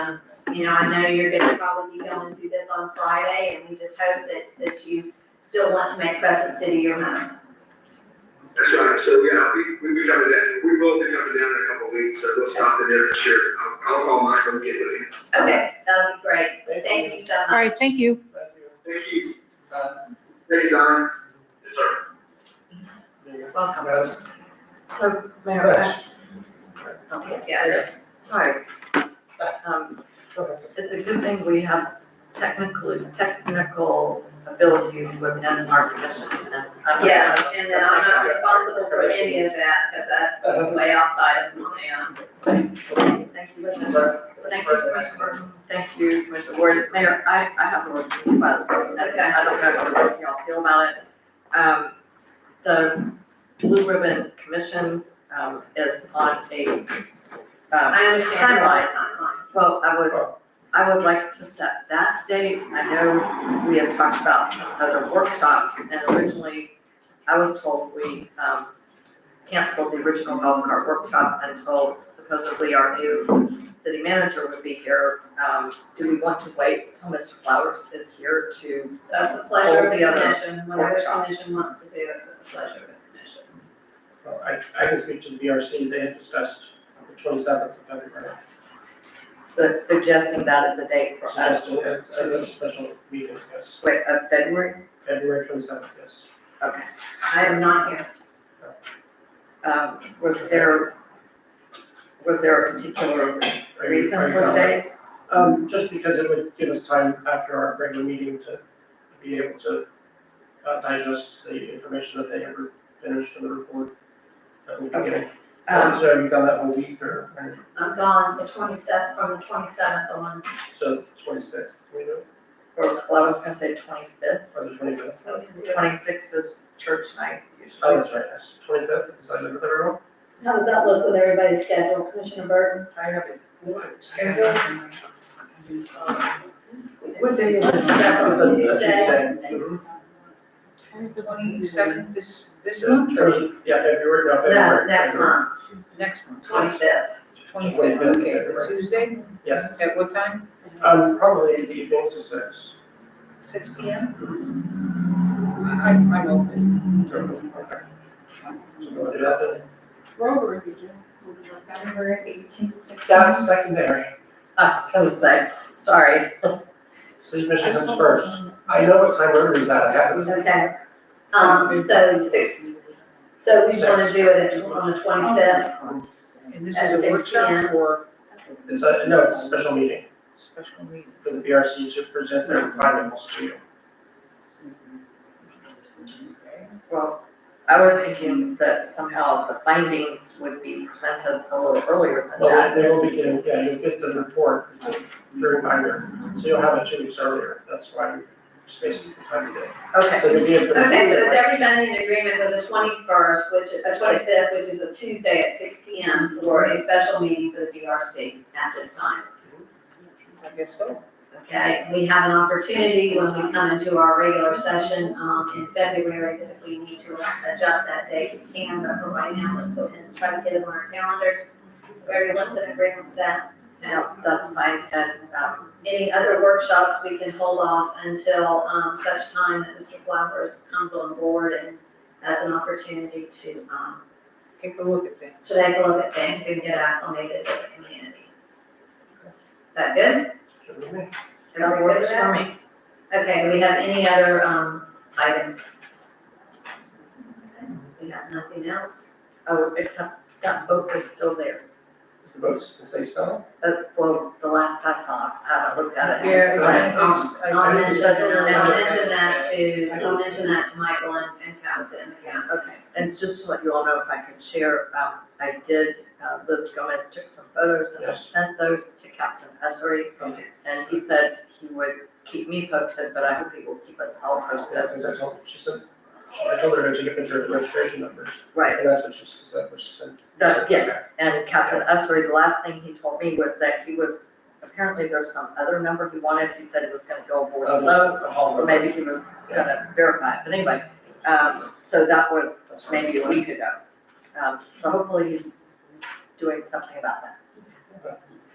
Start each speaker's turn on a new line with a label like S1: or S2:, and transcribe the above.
S1: You know, I know you're gonna probably be going through this on Friday, and we just hope that, that you still want to make Crescent City your home.
S2: That's right, so yeah, we, we be coming down, we will be coming down in a couple of weeks, so we'll stop in there this year. I'll, I'll call Michael and get with him.
S1: Okay, that'll be great. Thank you so much.
S3: All right, thank you.
S2: Thank you.
S4: Uh,
S2: Thank you, Don.
S4: Yes, sir.
S5: Welcome.
S4: Uh,
S5: So, Mayor, I-
S4: yes.
S5: okay,
S1: Yeah.
S5: sorry. Um, It's a good thing we have technically, technical abilities within our commission and. I'm-
S1: Yeah, and then I'm not responsible for any of that, because
S5: Uh-huh.
S1: that's way outside of my, um,
S5: Thank you, Commissioner. Thank you, Commissioner. Burton. Thank you, Commissioner Ward. Mayor, I, I have a request.
S1: Okay.
S5: I don't know how the rest of y'all feel about it. Um, the Blue Ribbon Commission, um, is on a, um,
S1: I understand your
S5: Timeline.
S1: timeline.
S5: Well, I would, I would like to set that date. I know we had talked about other workshops and originally I was told we, um, canceled the original golf cart workshop until supposedly our new city manager would be here. Um, do we want to wait till Mr. Flowers is here to?
S1: That's the pleasure of the
S5: All the other
S1: commission, whatever the
S5: workshops.
S1: commission wants to do, it's at the pleasure of the commission.
S6: Well, I, I can speak to the BRC, they had discussed the twenty-seventh of February,
S5: But suggesting that as a date for us,
S6: suggested as, as a special meeting, yes,
S5: wait, of February?
S6: February twenty-seventh, yes.
S1: I am not here.
S5: Um, was there, was there a particular
S6: Are you-
S5: reason
S6: are you
S5: for the
S6: not-
S5: date?
S6: Um, just because it would give us time after our regular meeting to be able to uh, digest the information that they ever finished in the report that we can get.
S5: Um,
S6: So have you done that one week or, or-
S1: I'm gone the twenty-seventh, from the twenty-seventh on.
S6: so twenty-sixth, you know,
S5: or, well, I was gonna say twenty-fifth,
S6: or the twenty-fifth?
S5: twenty-sixth is church night
S6: Oh,
S5: usually.
S6: that's right, yes, twenty-fifth, because I live at the room.
S1: How does that look with everybody's schedule, Commissioner Burton?
S4: I have a one scheduled. What day is
S1: That's on
S6: It's a- a
S1: Tuesday.
S6: Tuesday. Mhm.
S4: it? Twenty-seventh, this, this
S6: Yeah,
S4: month or
S6: February- Yeah, February, no,
S1: No,
S6: February.
S1: next month,
S4: next month?
S1: twenty-fifth.
S4: Twenty-fifth, okay, the Tuesday,
S6: Yes,
S4: at what time?
S6: um, probably in the evening, so six.
S4: Six P M? I, I'm I'm open.
S6: Okay. So we'll do that then.
S7: November eighteenth, six.
S6: That's secondary,
S5: I was gonna say, sorry,
S6: city commission comes first. I know what time Rotary is at, I have it.
S1: Okay. Um, so six, so we wanna do it at- on the twenty-fifth
S4: And this
S1: At
S4: is a
S1: 6
S4: workshop
S1: p.m.
S4: or
S6: It's a, no, it's a special meeting
S4: special meeting?
S6: for the BRC to present their findings to you.
S5: well, I was thinking that somehow the findings would be presented a little earlier than
S6: Well,
S5: that.
S6: they they will be getting, yeah, you'll get the report during minor, so you'll have it two weeks earlier, that's why we spaced the time today.
S5: Okay,
S6: So you'll be able to.
S1: Okay, so is everybody in agreement with the twenty-first, which is, a twenty-fifth, which is a Tuesday at six P M for a special meeting for the BRC at this time?
S4: I guess so.
S1: Okay, we have an opportunity when we come into our regular session, um, in February, that if we need to adjust that date, we can, but for right now, let's go ahead and try to get it on our calendars. Everyone's in agreement with that. Now,
S5: now, that's fine, and, um,
S1: any other workshops, we can hold off until, um, such time that Mr. Flowers comes on board and has an opportunity to, um,
S4: Take a look at that.
S1: so they can look at things and get acclimated to the community. Is that good?
S5: that
S1: Everybody good with
S5: works
S1: that?
S5: for me.
S1: Okay, do we have any other, um, items? We have nothing else?
S5: Oh, except that boat was still there,
S6: Is the votes, is they still?
S5: but, well, the last I saw, I haven't looked at it since
S4: Yeah,
S5: then.
S4: it's, it's. I-
S1: I'll mention, I'll
S5: Yeah.
S1: mention that to, I'll mention that to Michael and, and Kat and the county.
S5: Okay, and just to let you all know, if I could share, um, I did, uh, Liz Gomez took some photos and I
S6: Yes.
S5: sent those to Captain Essery.
S6: Okay.
S5: And he said he would keep me posted, but I hope he will keep us all
S6: Yeah,
S5: posted.
S6: because I told, she said, I told her to take a picture of the registration numbers,
S5: Right,
S6: and that's what she said, what she said.
S5: No, yes, and Captain Essery, the last thing he told me was that he was, apparently there's some other number he wanted, he said he was gonna go aboard
S6: Uh,
S5: low,
S6: there's a hall
S5: Um, or
S6: number.
S5: maybe he was gonna verify, it. but anyway, um, so that was maybe a week ago. Um, so hopefully he's doing something about that.